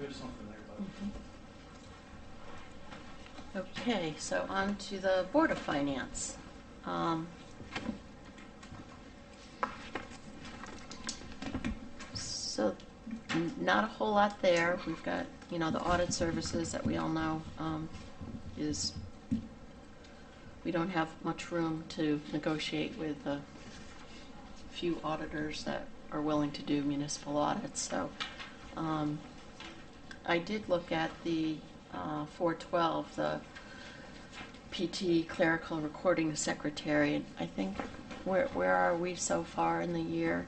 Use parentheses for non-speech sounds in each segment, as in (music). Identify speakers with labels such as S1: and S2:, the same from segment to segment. S1: There's something there, but
S2: Mhm. Mm-hmm. Okay, so on to the Board of Finance. Um, So, n- not a whole lot there. We've got, you know, the audit services that we all know um, is, we don't have much room to negotiate with the few auditors that are willing to do municipal audits, so. um, I did look at the uh, 412, the PT clerical recording secretary. and I think, where where are we so far in the year?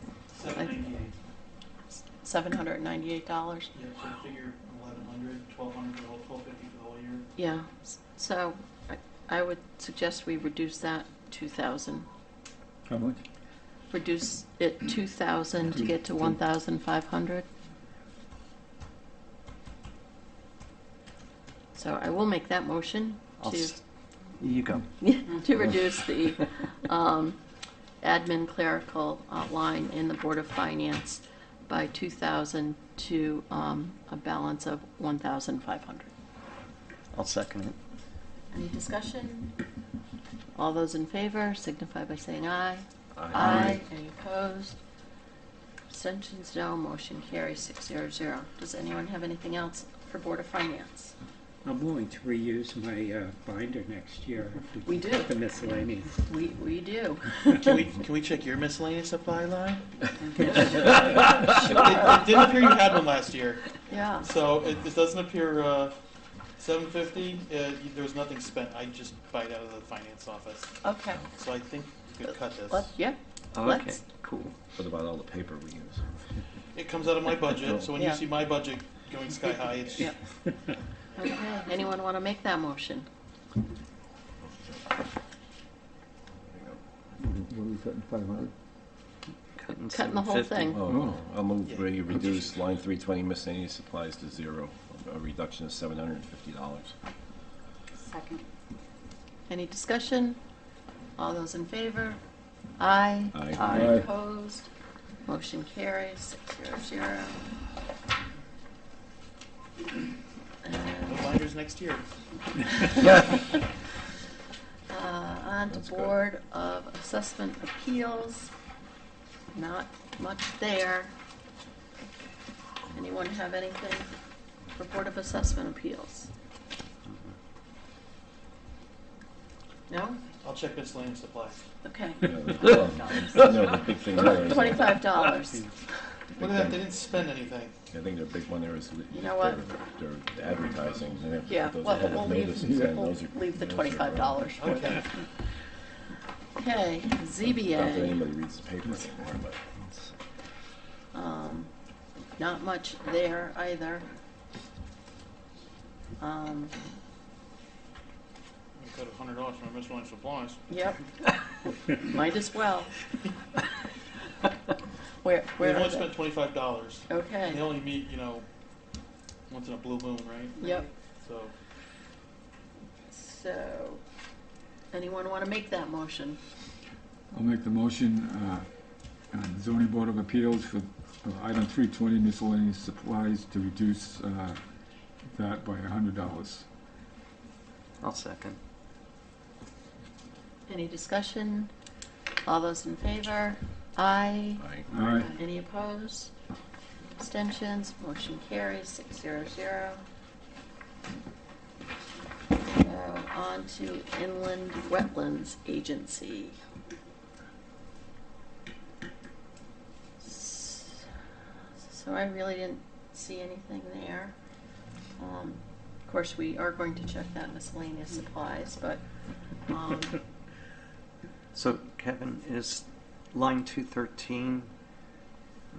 S1: seven ninety-eight.
S2: $798?
S1: Yeah, so figure eleven hundred, twelve hundred, twelve fifty for the whole year.
S2: Yeah, s- so I- I would suggest we reduce that 2,000.
S3: How much?
S2: Reduce it 2,000 to get to 1,500. So I will make that motion
S3: I'll
S2: to...
S3: s- You go.
S2: to reduce the um, admin clerical uh, line in the Board of Finance by 2,000 to um, a balance of 1,500.
S3: I'll second it.
S2: Any discussion? All those in favor signify by saying aye.
S3: Aye.
S2: Any opposed? Abstentions, no. Motion carries six zero zero. Does anyone have anything else for Board of Finance?
S4: I'm willing to reuse my uh, binder next year. if
S2: We
S4: can
S2: do.
S4: cut
S2: (laughs)
S4: The miscellaneous.
S2: We, we do.
S5: Can we, can we check your miscellaneous supply line? It,
S2: Sure.
S5: it didn't appear you had one last year,
S2: Yeah.
S5: so it, it doesn't appear, uh, seven fifty, uh, there was nothing spent, I just buy it out of the finance office.
S2: Okay.
S5: So I think we could cut this.
S2: Let's, yeah.
S3: Oh, Okay,
S2: Let's-
S3: cool.
S6: What about all the paper we use?
S5: It comes out of my budget, so when you
S2: Yeah.
S5: see my budget going sky high, it's,
S2: Yeah. Okay, anyone want to make that motion?
S3: What are we cutting, five hundred? Cutting
S2: Cutting the whole
S3: 750.
S2: thing.
S6: Oh,
S5: Yeah.
S6: I'll move, we reduce line three twenty miscellaneous supplies to zero, a reduction of seven hundred and fifty dollars.
S7: Second.
S2: Any discussion? All those in favor? Aye.
S6: Aye. (laughs)
S3: Aye.
S2: Opposed? Motion carries, six zero zero.
S5: no
S2: And,
S5: binders next year.
S2: uh, On to
S6: That's good.
S2: Board of Assessment Appeals. Not much there. Anyone have anything for Board of Assessment Appeals? No?
S5: I'll check miscellaneous supplies.
S2: Okay.
S6: (laughs) Yeah, well, No, the big thing there is. uh,
S2: Twenty-five dollars.
S5: Look at that, they didn't spend anything.
S6: I think their big one there is.
S2: You know what?
S6: Their their advertising, they have to
S2: Yeah,
S6: put those
S2: well,
S6: ahead
S2: we'll
S6: of
S2: leave,
S6: notice and saying
S2: we'll
S6: those are.
S2: leave the
S6: those are, uh,
S2: twenty-five dollars.
S5: Okay.
S2: Okay,
S6: Not that
S2: ZBA,
S6: anybody reads the paper anymore, but. it's-
S2: um, not much there either. Um,
S5: We cut a hundred dollars from our miscellaneous supplies.
S2: yep, might as well. Where,
S5: We've
S2: where are
S5: only
S2: they?
S5: spent twenty-five dollars. They
S2: Okay,
S5: only meet, you know, once in a blue moon, right?
S2: yep,
S5: So,
S2: so, anyone wanna make that motion?
S8: I'll make the motion uh, on zoning board of appeals for for item three twenty miscellaneous supplies to reduce uh, that by a hundred dollars.
S3: I'll second.
S2: Any discussion? All those in favor? Aye.
S6: Aye.
S8: All right,
S2: Any opposed? Abstentions? Motion carries six zero zero. So on to Inland Wetlands Agency. So I really didn't see anything there. Um, Of course, we are going to check that miscellaneous supplies, but, um,
S3: So Kevin, is line two thirteen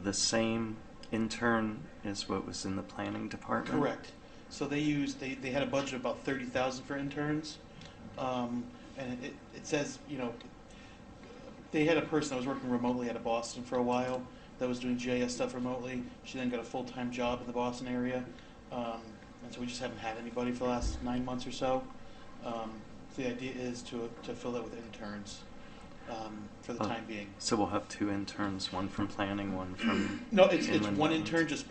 S3: the same intern as what was in the planning department?
S5: correct. So they used, they, they had a budget of about thirty thousand for interns. Um, and it, it says, you know, they had a person that was working remotely out of Boston for a while that was doing GIS stuff remotely. She then got a full-time job in the Boston area. Um, and so we just haven't had anybody for the last nine months or so. Um, so the idea is to, to fill that with interns, um, for the
S3: Oh.
S5: time being.
S3: So we'll have two interns, one from planning, one from
S5: No, it's, it's
S3: Inland
S5: one
S3: wetlands.
S5: intern just